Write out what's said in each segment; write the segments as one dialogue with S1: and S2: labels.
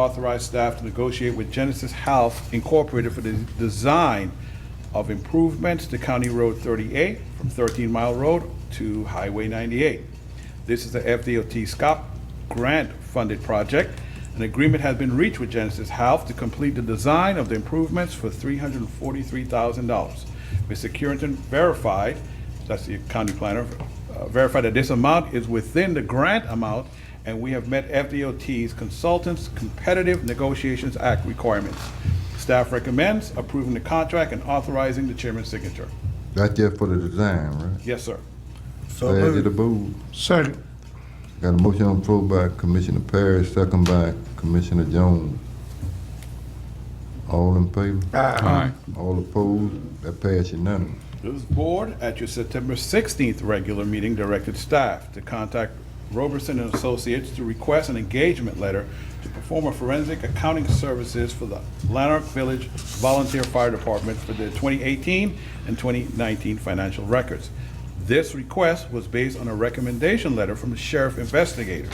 S1: authorize staff to negotiate with Genesis Health Incorporated for the design of improvements to County Road 38 from 13 Mile Road to Highway 98. This is the FDOT SCOP grant-funded project. An agreement has been reached with Genesis Health to complete the design of the improvements for $343,000. Mr. Currington verified, that's the county planner, uh, verified that this amount is within the grant amount, and we have met FDOT's Consultants Competitive Negotiations Act requirements. Staff recommends approving the contract and authorizing the chairman's signature.
S2: That's just for the design, right?
S1: Yes, sir.
S3: So
S2: Add to the
S3: moved.
S2: board.
S4: Second.
S2: Got a motion on the floor by Commissioner Parrish, second by Commissioner Jones. All in favor?
S4: Aye.
S2: All opposed? That pass unanimous.
S1: This board, at your September 16th regular meeting, directed staff to contact Roberson and Associates to request an engagement letter to perform a forensic accounting services for the Lanark Village Volunteer Fire Department for the 2018 and 2019 financial records. This request was based on a recommendation letter from the sheriff investigators.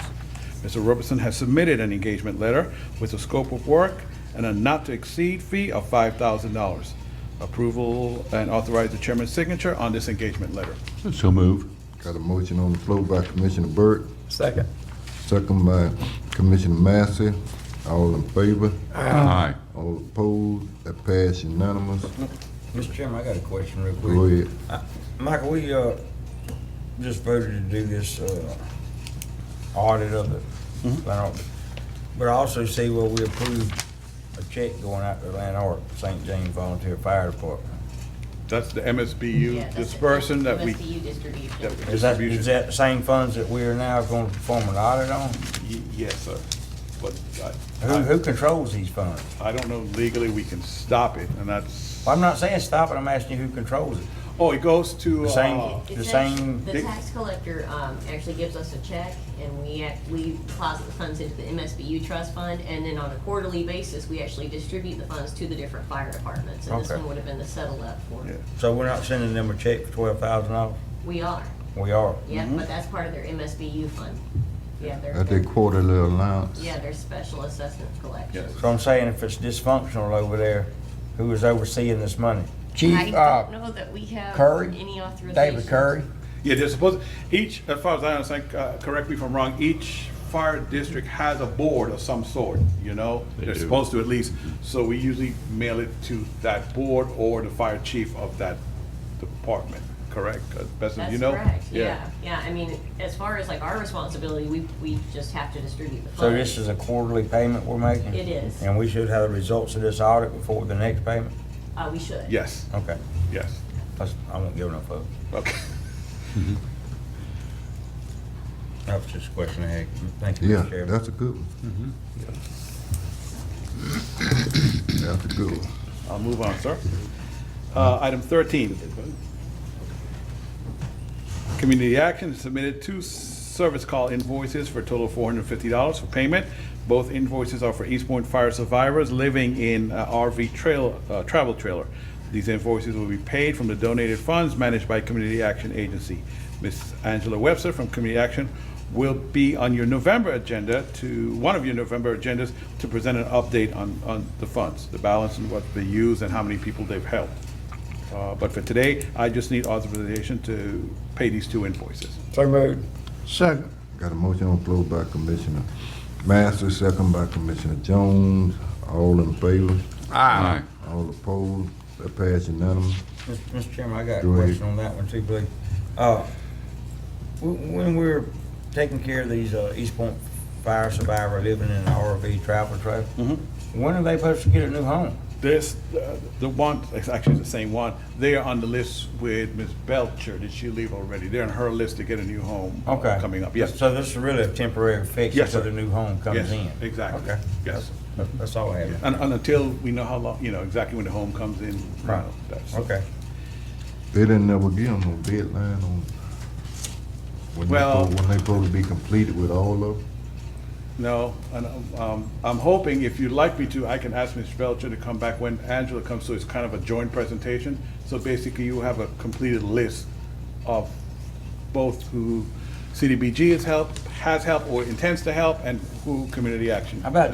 S1: Mr. Robertson has submitted an engagement letter with a scope of work and a not-to-exceed fee of $5,000. Approval and authorize the chairman's signature on this engagement letter.
S4: So move.
S2: Got a motion on the floor by Commissioner Burke,
S3: Second.
S2: second by Commissioner Massey. All in favor?
S4: Aye.
S2: All opposed? That pass unanimous.
S5: Mr. Chairman, I got a question real
S2: Go
S5: quick.
S2: ahead.
S5: Michael, we, uh, just voted to do this, uh, audit of the land But I also see where we approved a check going out to Land Art, St. James Volunteer Fire Department.
S1: That's the
S6: Yeah,
S1: MSBU
S6: that's it.
S1: dispersion that we,
S6: MSBU distribution.
S1: that we-
S5: Is that,
S1: Distribution.
S5: is that the same funds that we are now going to perform an audit on?
S1: Y- yes, sir. But I-
S5: Who, who controls these funds?
S1: I, I don't know legally we can stop it, and that's,
S5: Well, I'm not saying stop it, I'm asking you who controls it.
S1: oh, it goes to, uh,
S5: The same-
S6: It-
S5: the
S6: it's
S5: same-
S6: act- The
S1: Dick-
S6: tax collector um, actually gives us a check, and we, act- we deposit the funds into the MSBU trust fund, and then on a quarterly basis, we actually distribute the funds to the different fire departments, and this
S5: Okay.
S6: one would have been the settle up for.
S1: Yeah.
S5: So we're not sending them a check for twelve thousand dollars?
S6: We are,
S5: We are.
S6: yeah, but that's part of their MSBU fund. Yeah,
S2: That's their
S6: their,
S2: quarterly allowance.
S6: yeah, their special assessment collection.
S1: Yes.
S5: So I'm saying if it's dysfunctional over there, who is overseeing this money?
S6: I
S5: Chief, uh,
S6: don't know that we have
S5: Curry?
S6: any authorization.
S5: David Curry?
S1: yeah, they're supposed, each, as far as I understand, uh, correct me if I'm wrong, each fire district has a board of some sort, you know?
S4: They
S1: They're
S4: do.
S1: supposed to at least, so we usually mail it to that board or the fire chief of that department, correct? Uh, Best as
S6: That's
S1: you know?
S6: correct, yeah, yeah, I mean, as far as like our responsibility, we, we just have to distribute the funds.
S5: So this is a quarterly payment we're making?
S6: It is.
S5: And we should have the results of this audit before the next payment?
S6: Uh, we should.
S1: Yes,
S5: Okay,
S1: yes,
S5: That's- I won't give no fuck.
S1: okay.
S5: That was just a question I had. Thank you,
S2: Yeah,
S5: Mr. Chairman.
S2: that's a good one. That's a good one.
S1: I'll move on, sir. Uh, Item 13. Community Action submitted two service call invoices for a total of $450 for payment. Both invoices are for Eastbourne Fire survivors living in uh, RV trail, uh, travel trailer. These invoices will be paid from the donated funds managed by Community Action Agency. Ms. Angela Webster from Community Action will be on your November agenda to, one of your November agendas, to present an update on, on the funds, the balance and what they use and how many people they've helped. Uh, But for today, I just need authorization to pay these two invoices.
S3: So moved.
S4: Second.
S2: Got a motion on the floor by Commissioner Masters, second by Commissioner Jones. All in favor?
S4: Aye.
S2: All opposed? That pass unanimous.
S5: Mr. Mr. Chairman, I got
S2: Go
S5: a
S2: ahead.
S5: question on that one too, please. Uh, wh- When we're taking care of these uh, East Point fire survivor living in an RV travel trailer, when are they supposed to get a new home?
S1: This, uh, the one, it's actually the same one, they are on the list with Ms. Belcher. Did she leave already? They're on her list to get a new home uh,
S5: Okay.
S1: coming up. Yes,
S5: So this is really a temporary fix
S1: Yes,
S5: until
S1: sir.
S5: the new home comes in?
S1: yes, exactly.
S5: Okay.
S1: Yes.
S5: That- That's all I have.
S1: And and until we know how long, you know, exactly when the home comes in. you know,
S5: Right.
S1: that's-
S5: Okay.
S2: They didn't never give them no deadline on when they,
S1: Well-
S2: supposed- when they supposed to be completed with all of them.
S1: No, and um, I'm hoping, if you'd like me to, I can ask Ms. Belcher to come back when Angela comes, so it's kind of a joint presentation. So basically, you have a completed list of both who CDBG has helped, has helped, or intends to help, and who Community Action
S5: How about